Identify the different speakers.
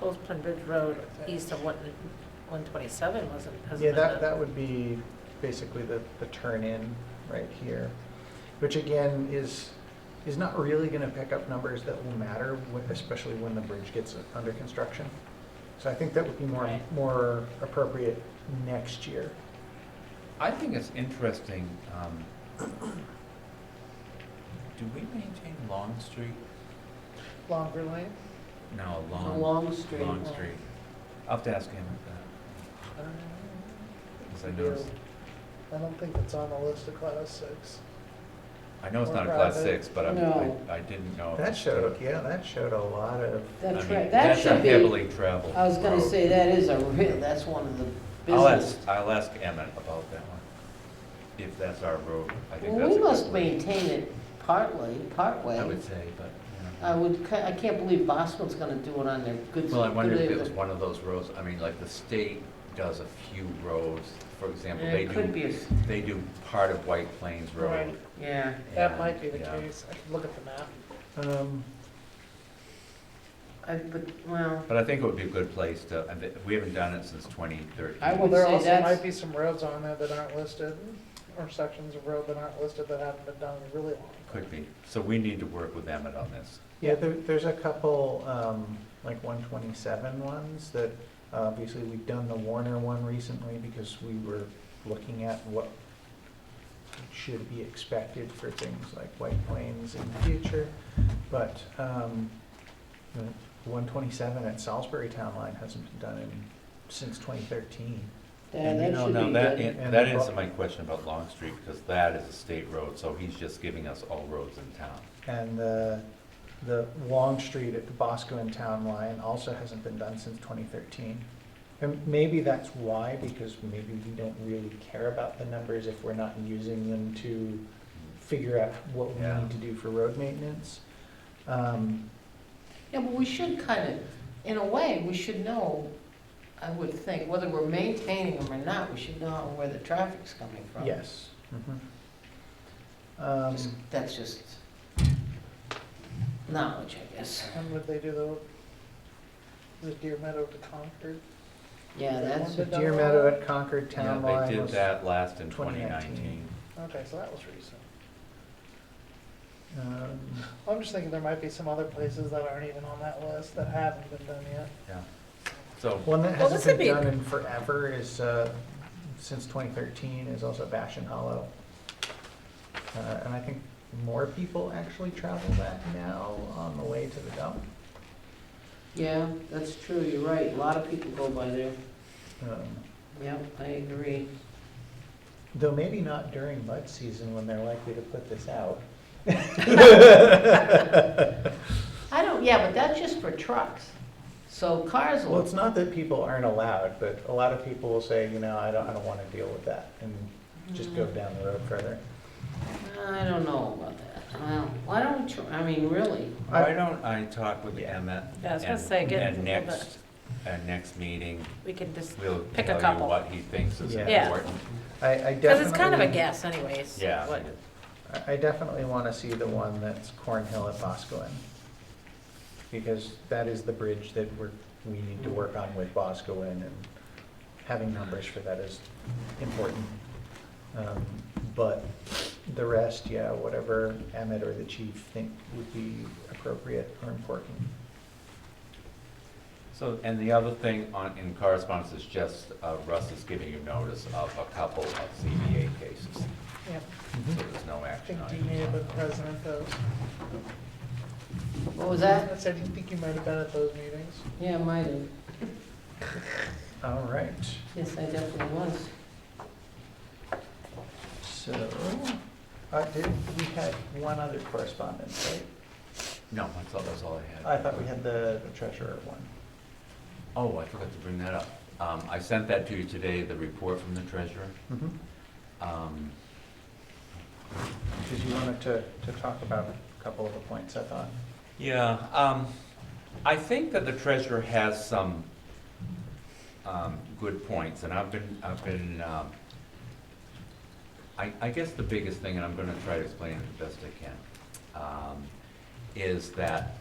Speaker 1: Oldsman Ridge Road east of one- 127 wasn't, hasn't
Speaker 2: Yeah,
Speaker 1: been
Speaker 2: that,
Speaker 1: done.
Speaker 2: that would be basically the, the turn-in right here, which again is, is not really gonna pick up numbers that will matter, wh- especially when the bridge gets under construction. So I think that would be more,
Speaker 1: Right.
Speaker 2: more appropriate next year.
Speaker 3: I think it's interesting, um, do we maintain Long Street?
Speaker 4: Longer lane?
Speaker 3: No, Long.
Speaker 4: Long Street.
Speaker 3: Long Street. I'll have to ask him about
Speaker 4: I don't know.
Speaker 3: that, 'cause I noticed,
Speaker 4: I don't think it's on the list of class six.
Speaker 3: I know it's not a
Speaker 4: Or
Speaker 3: class
Speaker 4: private.
Speaker 3: six, but I'm-
Speaker 5: No.
Speaker 3: I, I didn't know. if
Speaker 2: That
Speaker 3: it's
Speaker 2: showed,
Speaker 3: still-
Speaker 2: yeah, that showed a lot of,
Speaker 3: I
Speaker 5: That's
Speaker 3: mean,
Speaker 5: right, that
Speaker 3: That's a
Speaker 5: should be,
Speaker 3: heavily traveled.
Speaker 5: I was gonna
Speaker 3: road.
Speaker 5: say, that is a real, that's one of the
Speaker 3: I'll ask,
Speaker 5: business.
Speaker 3: I'll ask Emmett about that one, if that's our road. I think
Speaker 5: Well,
Speaker 3: that's a
Speaker 5: we
Speaker 3: good
Speaker 5: must
Speaker 3: road.
Speaker 5: maintain it partly,
Speaker 3: I
Speaker 5: partway.
Speaker 3: would say, but,
Speaker 5: I
Speaker 3: you know.
Speaker 5: would, ca- I can't believe Bosco's gonna do it on their good.
Speaker 3: Well, I wonder
Speaker 5: good
Speaker 3: if
Speaker 5: day
Speaker 3: it was
Speaker 5: of
Speaker 3: one of those roads, I mean, like the state does a few roads, for
Speaker 5: the-
Speaker 3: example, they
Speaker 5: It could
Speaker 3: do,
Speaker 5: be, a s-
Speaker 3: they do part of White Plains Road.
Speaker 4: Right.
Speaker 5: yeah,
Speaker 3: and-
Speaker 4: That might be the
Speaker 3: yeah.
Speaker 4: case. I could look at the map.
Speaker 2: um,
Speaker 5: I, but, well,
Speaker 3: But I think it would be a good place to, I thi- we haven't done it since twenty thirteen.
Speaker 5: I
Speaker 4: Well,
Speaker 5: would
Speaker 4: there
Speaker 5: say
Speaker 4: also
Speaker 5: that's-
Speaker 4: might be some roads on there that aren't listed, or sections of road that aren't listed that haven't been done in really long.
Speaker 3: Could be, so we need to work with Emmett on this.
Speaker 2: yeah, there, there's a couple, um, like 127 ones that, obviously, we've done the Warner one recently because we were looking at what should be expected for things like White Plains in the future. But um, the 127 at Salisbury Town Line hasn't been done in, since 2013.
Speaker 5: yeah,
Speaker 3: And you
Speaker 5: that
Speaker 3: know,
Speaker 5: should
Speaker 3: now
Speaker 5: be
Speaker 3: that
Speaker 5: good.
Speaker 3: an- That answered my question about Long Street, because that is a state road, so he's just giving us all roads in town.
Speaker 2: And the, the Long Street at the Bosco and Town Line also hasn't been done since 2013. And maybe that's why, because maybe we don't really care about the numbers if we're not using them to figure out what we
Speaker 3: Yeah.
Speaker 2: need to do for road maintenance. Um,
Speaker 5: Yeah, but we should kind of, in a way, we should know, I would think, whether we're maintaining them or not, we should know where the traffic's coming from.
Speaker 2: Yes. Mm-hmm. Um,
Speaker 5: Just- That's just knowledge, I guess.
Speaker 4: When would they do the, the Deer Meadow to Concord?
Speaker 5: Yeah, that's,
Speaker 2: So Deer Meadow at Concord Town
Speaker 3: Yeah,
Speaker 2: Line
Speaker 3: they did
Speaker 2: was,
Speaker 3: that last in twenty
Speaker 2: 2019.
Speaker 3: nineteen.
Speaker 4: Okay, so that was recent.
Speaker 2: um,
Speaker 4: I'm just thinking there might be some other places that aren't even on that list that haven't been done yet.
Speaker 3: Yeah. So,
Speaker 2: One that
Speaker 1: Well, this
Speaker 2: hasn't
Speaker 1: would be-
Speaker 2: been done in forever is, uh, since 2013, is also Bashan Hollow. Uh, And I think more people actually travel that now on the way to the dump.
Speaker 5: yeah, that's true, you're right, a lot of people go by there.
Speaker 2: Um,
Speaker 5: Yep, I agree.
Speaker 2: Though maybe not during mud season when they're likely to put this out.
Speaker 5: I don't, yeah, but that's just for trucks. So cars
Speaker 2: Well, it's
Speaker 5: will,
Speaker 2: not that people aren't allowed, but a lot of people will say, you know, I don't, I don't want to deal with that and just
Speaker 1: Mm.
Speaker 2: go down the road further.
Speaker 5: I don't know about that. Well, why don't we, tr- I mean, really,
Speaker 3: why don't I talk with
Speaker 2: Yeah.
Speaker 3: Emmett?
Speaker 1: Yeah, I was gonna
Speaker 3: and-
Speaker 1: say, get
Speaker 3: And
Speaker 1: a little bit-
Speaker 3: next, and next meeting,
Speaker 1: We can just,
Speaker 3: we'll
Speaker 1: Pick a
Speaker 3: tell you
Speaker 1: couple.
Speaker 3: what he thinks is
Speaker 2: Yeah.
Speaker 1: Yeah.
Speaker 3: important.
Speaker 2: I, I definitely.
Speaker 1: because it's kind of a guess anyways.
Speaker 3: Yeah.
Speaker 1: what-
Speaker 2: I- I definitely want to see the one that's Cornhill at Boscoin. Because that is the bridge that we're, we need to work on with Boscoin and having numbers for that is important. Um, But the rest, yeah, whatever Emmett or the chief think would be appropriate or important.
Speaker 3: So, and the other thing on, in correspondence is just uh, Russ is giving you notice of a couple of CBA cases,
Speaker 4: Yeah,
Speaker 3: so there's no
Speaker 4: I
Speaker 3: action
Speaker 4: think
Speaker 3: on
Speaker 4: you may have been
Speaker 3: it.
Speaker 4: present at those.
Speaker 5: what was
Speaker 4: I
Speaker 5: that?
Speaker 4: said, you think you might have been at those meetings?
Speaker 5: Yeah, might have.
Speaker 2: All right,
Speaker 5: Yes, I definitely was.
Speaker 2: so, uh, did, we had one other correspondence, right?
Speaker 3: No, I thought that's all I had.
Speaker 2: I thought we had the treasurer one.
Speaker 3: Oh, I forgot to bring that up. Um, I sent that to you today, the report from the treasurer.
Speaker 2: Mm-hmm.
Speaker 3: Um,
Speaker 2: Because you wanted to, to talk about a couple of the points, I thought.
Speaker 3: Yeah, um, I think that the treasurer has some, um, good points, and I've been, I've been, um, I, I guess the biggest thing, and I'm gonna try to explain it the best I can, um, is that